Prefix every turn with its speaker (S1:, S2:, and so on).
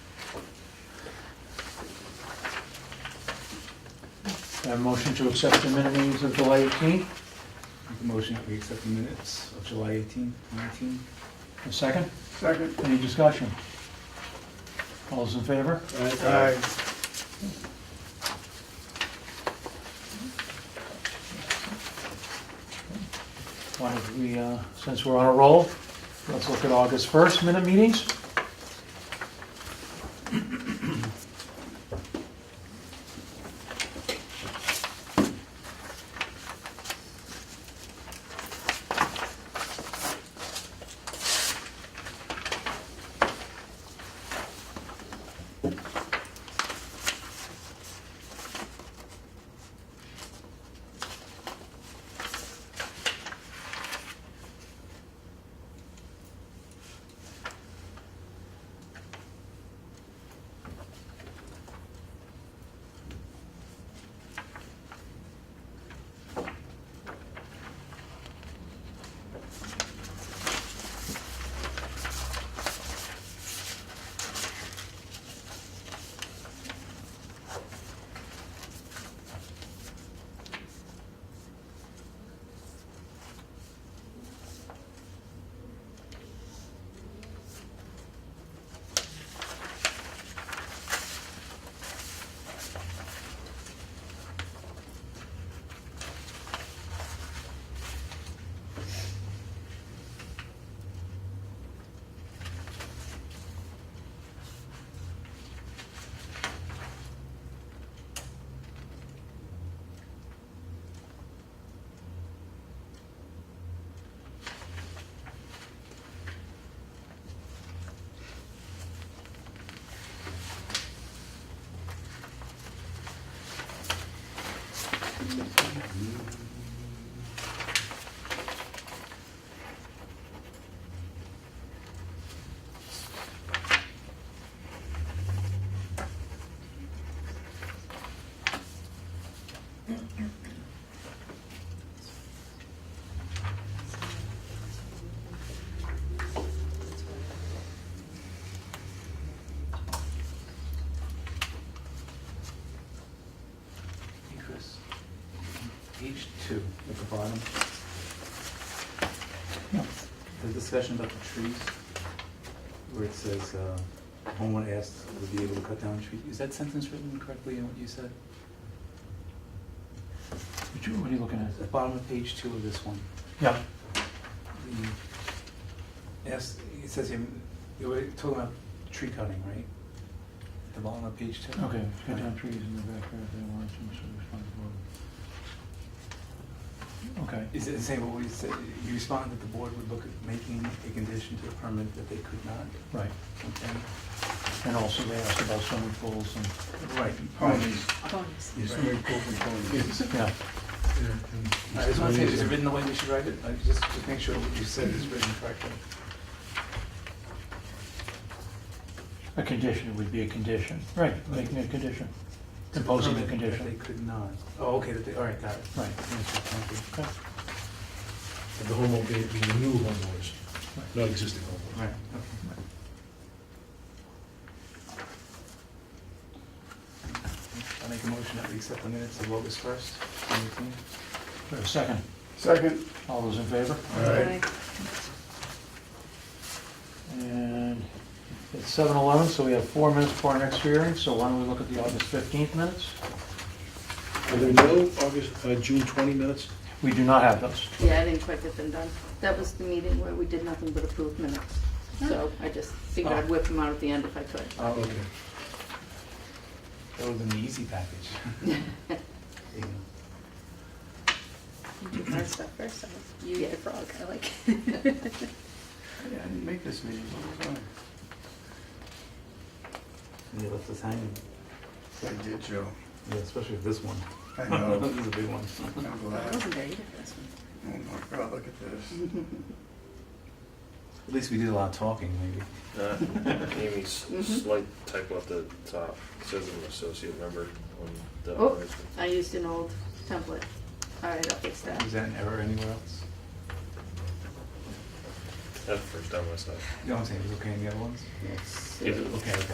S1: I have a motion to accept the minute meetings of July 18th.
S2: Make a motion that we accept the minutes of July 18, 19.
S1: A second?
S3: Second.
S1: Any discussion? All those in favor?
S3: Aye.
S1: Why don't we, uh, since we're on a roll, let's look at August 1st minute meetings.
S2: Hey, Chris. Page two at the bottom.
S1: Yeah.
S2: The discussion about the trees, where it says, uh, homeowner asked, would be able to cut down trees. Is that sentence written correctly in what you said?
S1: What you- what are you looking at?
S2: At the bottom of page two of this one.
S1: Yeah,
S2: the- Yes, it says, here, you were talking about tree cutting, right? At The bottom of page two.
S1: okay. Cut down trees in the backyard if they want to, so respond to the board. Okay.
S2: Is it the same what we said, you responded that the board would look at making a condition to the permit that they could not,
S1: Right,
S2: okay?
S1: and also they asked about swimming pools and,
S2: Right.
S3: Ponies.
S4: Bonus.
S3: There's so many purple ponies.
S1: yeah,
S2: I just want to say, is it written the way we should write it? I just, just make sure what you said is written correctly.
S1: a condition would be a condition, right, making a condition, imposing a
S2: Permit that
S1: condition,
S2: They could not, oh, okay, that they, all right, got it.
S1: right.
S2: Thank you.
S1: Okay.
S3: And The homeowner being the new homeowners, not existing homeowners.
S2: Right, okay. I make a motion that we accept the minutes of August first, twenty eighteen.
S1: For a second,
S3: Second.
S1: all those in favor?
S3: All right.
S1: And it's seven eleven, so we have four minutes before our next hearing, so why don't we look at the August fifteenth minutes?
S3: Are there no August, uh, June 20 minutes?
S1: We do not have those.
S4: Yeah, I didn't quite get them done. That was the meeting where we did nothing but approve minutes. So I just figured I'd whip them out at the end if I could.
S2: Oh,
S3: Okay.
S2: That would have been the easy package. Yeah.
S4: You do my stuff first, you get the frog, I like.
S2: Yeah, I didn't make this meeting, what was I? They left us hanging,
S5: I did, Joe.
S2: yeah, especially with this one.
S5: I
S2: This
S5: know.
S2: is a big one.
S5: I'm
S4: I
S5: glad.
S4: wasn't there, you did this one.
S5: Oh my God, look at this.
S2: At least we did a lot of talking, maybe.
S6: Uh, Amy's slight typo at the top, It says I'm an associate member on the.
S4: Oh.
S6: honors.
S4: I used an old template. All right, I'll fix that.
S2: Is that an error anywhere else?
S6: That's the first time I saw it.
S2: You know what I'm saying, it was okay in the other ones?
S4: Yes.
S2: Okay, okay.